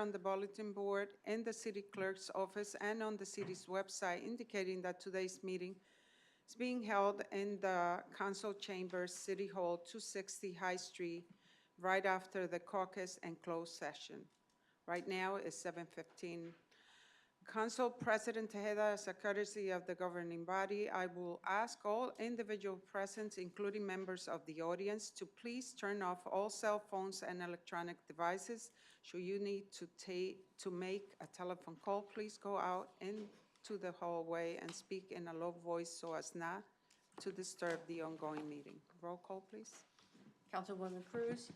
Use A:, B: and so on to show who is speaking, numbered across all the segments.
A: on the bulletin board in the city clerk's office and on the city's website indicating that today's meeting is being held in the council chambers, City Hall, 260 High Street, right after the caucus and closed session. Right now is 7:15. Council President Tejeda, as a courtesy of the governing body, I will ask all individual present, including members of the audience, to please turn off all cell phones and electronic devices. Should you need to ta, to make a telephone call, please go out into the hallway and speak in a low voice so as not to disturb the ongoing meeting. Roll call, please.
B: Councilwoman Cruz,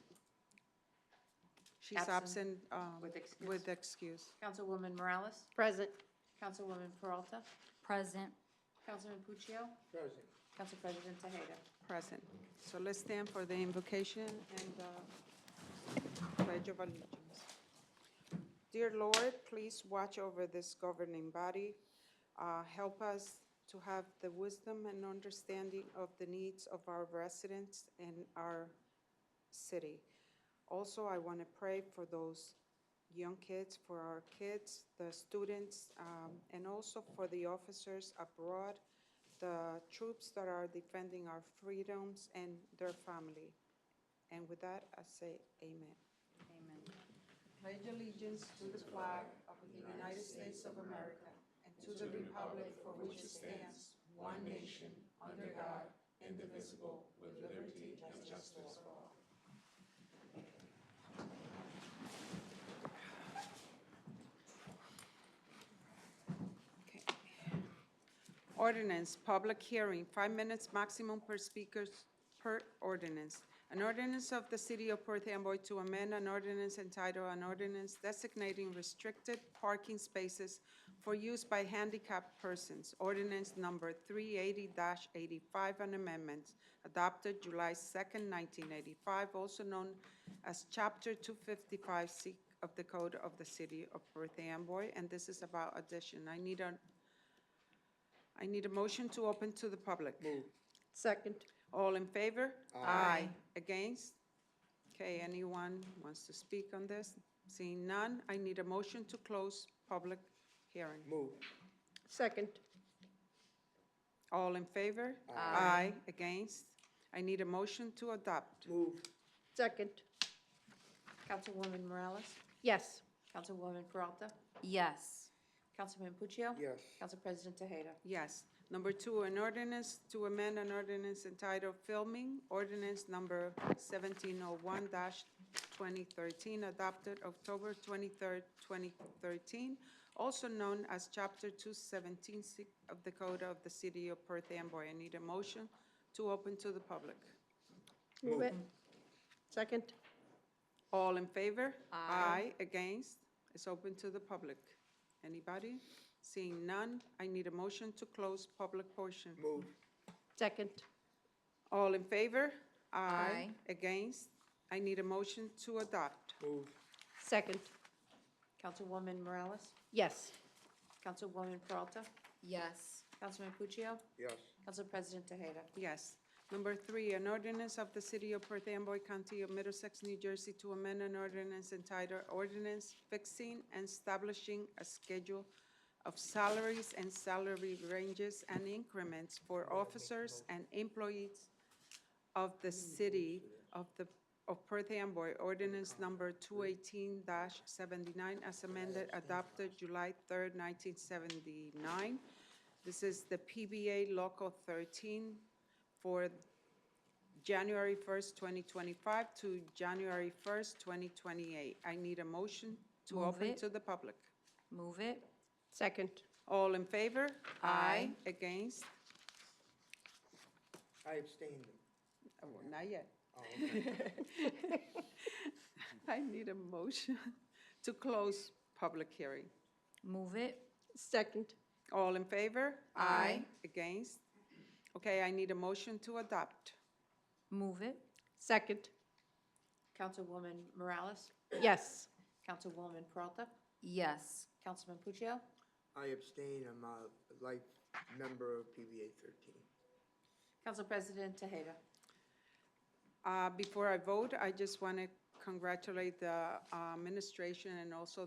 A: She's absent,
B: Absent.
A: um,
B: With excuse.
A: with excuse.
B: Councilwoman Morales,
C: Present.
B: Councilwoman Peralta,
D: Present.
B: Councilman Puccio. Council President Tejeda.
A: Present. So let's stand for the invocation and the pledge of allegiance. Dear Lord, please watch over this governing body. Uh, Help us to have the wisdom and understanding of the needs of our residents and our city. Also, I want to pray for those young kids, for our kids, the students, um, and also for the officers abroad, the troops that are defending our freedoms and their family. And with that, I say amen. Amen. Pledge allegiance to the flag of the United States of America and to the republic for which it stands, one nation, under God, indivisible, with liberty and justice for all. Okay. Ordinance, public hearing, five minutes maximum per speakers per ordinance. An ordinance of the City of Perth Amboy to amend an ordinance entitled an ordinance designating restricted parking spaces for use by handicapped persons. Ordinance number three eighty eighty-five, an amendment adopted July second, nineteen eighty-five, also known as Chapter two fifty-five C of the Code of the City of Perth Amboy, and this is about addition. I need a I need a motion to open to the public.
C: Second.
A: All in favor? Aye. Against? Okay, anyone wants to speak on this? Seeing none, I need a motion to close public hearing.
E: Move.
C: Second.
A: All in favor? Aye. Against? I need a motion to adopt.
E: Move.
C: Second.
B: Councilwoman Morales,
C: Yes.
B: Councilwoman Peralta,
D: Yes.
B: Councilman Puccio.
E: Yes.
B: Council President Tejeda.
A: Yes. Number two, an ordinance to amend an ordinance entitled Filming, ordinance number 1701-2013, adopted October 23rd, 2013, also known as Chapter 217 si- of the Code of the City of Perth Amboy. I need a motion to open to the public.
C: Move it. Second.
A: All in favor? Aye. Against? It's open to the public. Anybody? Seeing none, I need a motion to close public portion.
E: Move.
C: Second.
A: All in favor?
D: Aye.
A: Against? I need a motion to adopt.
E: Move.
C: Second.
B: Councilwoman Morales,
C: Yes.
B: Councilwoman Peralta,
D: Yes.
B: Councilman Puccio,
E: Yes.
B: Council President Tejeda.
A: Yes. Number three, an ordinance of the City of Perth Amboy County of Middlesex, New Jersey to amend an ordinance entitled Ordinance Fixing and Establishing a Schedule of Salaries and Salary Ranges and Increments for Officers and Employees of the City of the, of Perth Amboy, ordinance number two eighteen seventy-nine, as amended, adopted July third, nineteen seventy-nine. This is the PBA Local thirteen for January first, twenty twenty-five to January first, twenty twenty-eight. I need a motion to
D: Move
A: open
D: it.
A: to the public.
D: Move it.
C: Second.
A: All in favor?
D: Aye.
A: Against?
E: I abstained.
A: Oh, Not yet.
E: Oh, okay.
A: I need a motion to close public hearing.
D: Move it.
C: Second.
A: All in favor?
D: Aye.
A: Against? Okay, I need a motion to adopt.
D: Move it.
C: Second.
B: Councilwoman Morales,
C: Yes.
B: Councilwoman Peralta,
D: Yes.
B: Councilman Puccio,
E: I abstain. I'm a life member of PBA thirteen.
B: Council President Tejeda.
A: Uh, Before I vote, I just want to congratulate the uh, administration and also